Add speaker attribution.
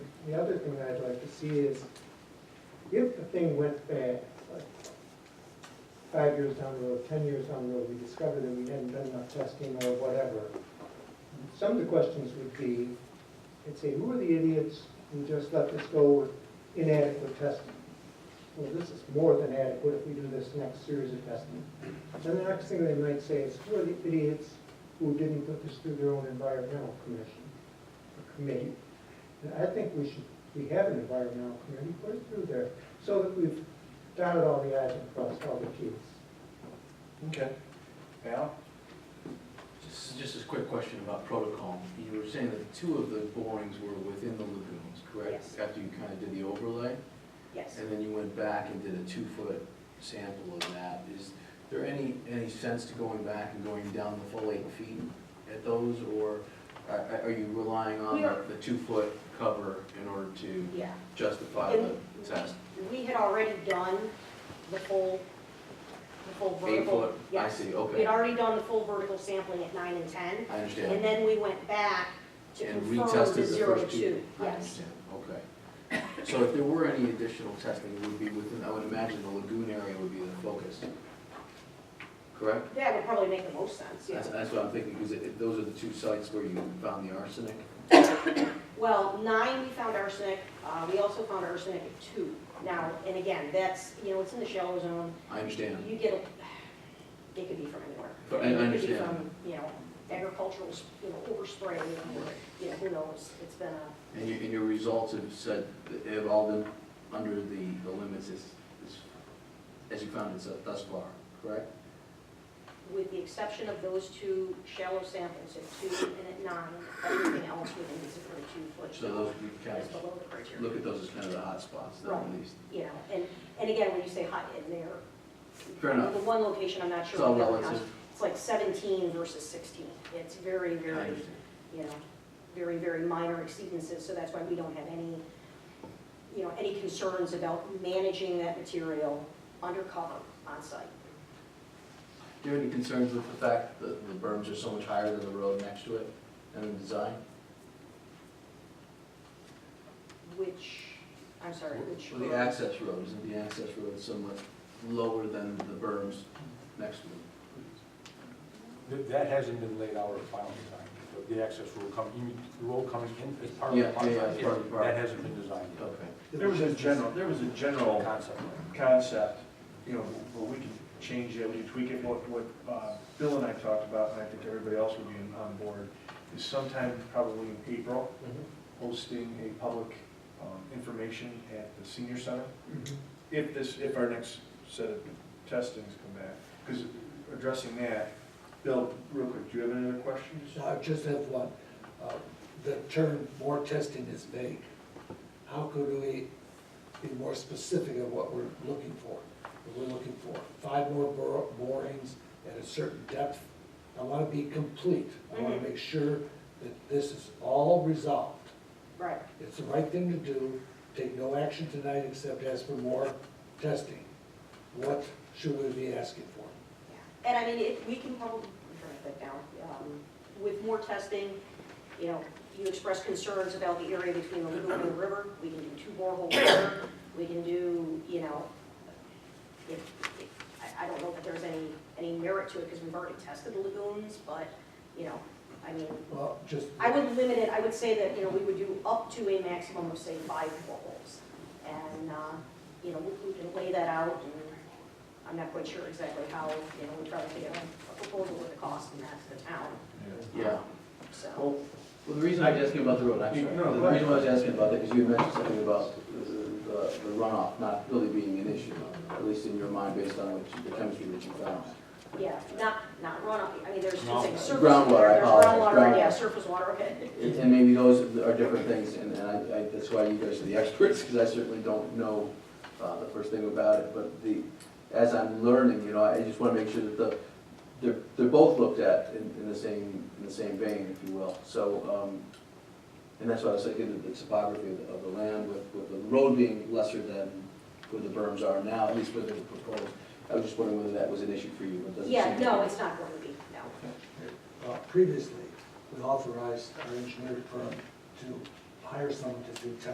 Speaker 1: the other thing I'd like to see is, if the thing went bad, like five years down the road, ten years down the road, we discovered that we hadn't done enough testing or whatever, some of the questions would be, it'd say, who are the idiots who just let this go with inadequate testing? Well, this is more than adequate if we do this next series of testing. Then the next thing they might say is, who are the idiots who didn't put this through their own environmental commission, or committee? And I think we should, we have an environmental committee, put it through there, so that we've dotted all the i's and crossed all the t's.
Speaker 2: Okay. Al?
Speaker 3: Just, just a quick question about protocol. You were saying that two of the borings were within the lagoons, correct?
Speaker 4: Yes.
Speaker 3: After you kind of did the overlay,
Speaker 4: Yes.
Speaker 3: and then you went back and did a two-foot sample of that. Is there any, any sense to going back and going down the full eight feet at those? Or are, are you relying on
Speaker 4: We are-
Speaker 3: the two-foot cover in order to
Speaker 4: Yeah.
Speaker 3: justify the
Speaker 4: And
Speaker 3: test?
Speaker 4: We had already done the full, the full
Speaker 3: Eight
Speaker 4: vertical.
Speaker 3: foot? I
Speaker 4: Yes.
Speaker 3: see,
Speaker 4: We had
Speaker 3: okay.
Speaker 4: already done the full vertical sampling at nine and ten,
Speaker 3: I understand.
Speaker 4: and then we went back to
Speaker 3: And
Speaker 4: confirm
Speaker 3: retested
Speaker 4: the
Speaker 3: the
Speaker 4: zero to
Speaker 3: first
Speaker 4: two.
Speaker 3: two? I
Speaker 4: Yes,
Speaker 3: understand, okay. So if there were any additional testing, it would be within, I would imagine the lagoon area would be the focus, correct?
Speaker 4: that would probably make the most sense, yeah.
Speaker 3: That's, that's what I'm thinking, because it- it- those are the two sites where you found the arsenic.
Speaker 4: Well, nine, we found arsenic, uh, we also found arsenic at two. Now, and again, that's, you know, it's in the shallow zone,
Speaker 3: I understand,
Speaker 4: you get, a it could be from anywhere.
Speaker 3: But I- I
Speaker 4: It could be
Speaker 3: understand.
Speaker 4: from, you know, agricultural, you know, overspray, you know, yeah, who knows, it's been a.
Speaker 3: and your, and your results have said, that have all been under the, the limits as, as, as you found it so- thus far, correct?
Speaker 4: with the exception of those two shallow samples at two and at nine, everything else within these thirty-two foot.
Speaker 3: So those, you kind
Speaker 4: Is
Speaker 3: of,
Speaker 4: below the criteria.
Speaker 3: look at those as kind of the hot spots, then, at
Speaker 4: Right.
Speaker 3: least.
Speaker 4: You know, and, and again, when you say high in there.
Speaker 3: Fair enough.
Speaker 4: The one location, I'm not sure.
Speaker 3: It's all
Speaker 4: what that
Speaker 3: relative,
Speaker 4: counts. It's like seventeen versus sixteen. It's very,
Speaker 3: I
Speaker 4: very,
Speaker 3: understand.
Speaker 4: you know, very, very minor exceedances, so that's why we don't have any, you know, any concerns about managing that material undercover on site.
Speaker 3: Do you have any concerns with the fact that the berms are so much higher than the road next to it and the design?
Speaker 4: Which, I'm sorry, which.
Speaker 3: Well, The
Speaker 4: road?
Speaker 3: access road, isn't the access road somewhat lower than the berms next to it?
Speaker 2: That that hasn't been laid out or final design, but the access road coming, you mean, the road coming in as part of the
Speaker 3: Yeah,
Speaker 2: park.
Speaker 3: yeah, yeah, it's part of the park.
Speaker 2: That hasn't been designed yet.
Speaker 3: Okay.
Speaker 5: There was a general, there was a general
Speaker 2: Concept. plan.
Speaker 5: concept, you know, where we can change it, we can tweak it, what, what uh, Bill and I talked about, and I think everybody else would be on board, is sometime probably in April,
Speaker 1: Mm-hmm.
Speaker 5: hosting a public um, information at the senior center,
Speaker 1: Mm-hmm.
Speaker 5: if this, if our next set of testings come back. Because addressing that, Bill, real quick, do you have any other questions?
Speaker 6: I just have one. Uh, The term more testing is vague. How could we be more specific of what we're looking for? What We're looking for five more bor- borings at a certain depth. I want to be complete. I want
Speaker 4: Mhm.
Speaker 6: to make sure that this is all resolved.
Speaker 4: Right.
Speaker 6: It's the right thing to do. Take no action tonight except ask for more testing. What should we be asking for?
Speaker 4: Yeah, And I mean, if, we can probably, write that down, um, with more testing, you know, you express concerns about the area between the lagoon and the river, we can do two boreholes there, we can do, you know, if, if, I, I don't know that there's any, any merit to it, because we've already tested the lagoons, but, you know, I mean,
Speaker 6: Well, just.
Speaker 4: I would limit it, I would say that, you know, we would do up to a maximum of, say, five boreholes. And, uh, you know, we- we can lay that out, and I'm not quite sure exactly how, you know, we try to get a a proposal with the cost, and that's the town,
Speaker 3: Yeah.
Speaker 4: so.
Speaker 5: Well,
Speaker 3: Well, the reason I was asking about the road, I'm sorry,
Speaker 5: No, go
Speaker 3: the
Speaker 5: ahead.
Speaker 3: reason why I was asking about that is you mentioned something about the- the the runoff not really being an issue, at least in your mind, based on what you- the chemistry that you found.
Speaker 4: Yeah, not, not runoff, I mean, there's two
Speaker 2: Groundwater.
Speaker 4: things, surface
Speaker 3: Groundwater, I
Speaker 4: water, there's
Speaker 3: apologize,
Speaker 4: groundwater, yeah,
Speaker 3: groundwater.
Speaker 4: surface water, okay.
Speaker 3: And and maybe those are different things, and and I, I- that's why you guys are the experts, because I certainly don't know uh, the first thing about it, but the, as I'm learning, you know, I just want to make sure that the, they're, they're both looked at in, in the same, in the same vein, if you will. So, um, and that's why I was thinking of the topography of the, of the land, with, with the road being lesser than where the berms are now, at least where they're proposed. I was just wondering whether that was an issue for you, but it doesn't seem.
Speaker 4: Yeah,
Speaker 3: to
Speaker 4: no,
Speaker 3: be.
Speaker 4: it's not going to be, no.
Speaker 6: Uh, Previously, we authorized our engineering firm to hire someone to do testing.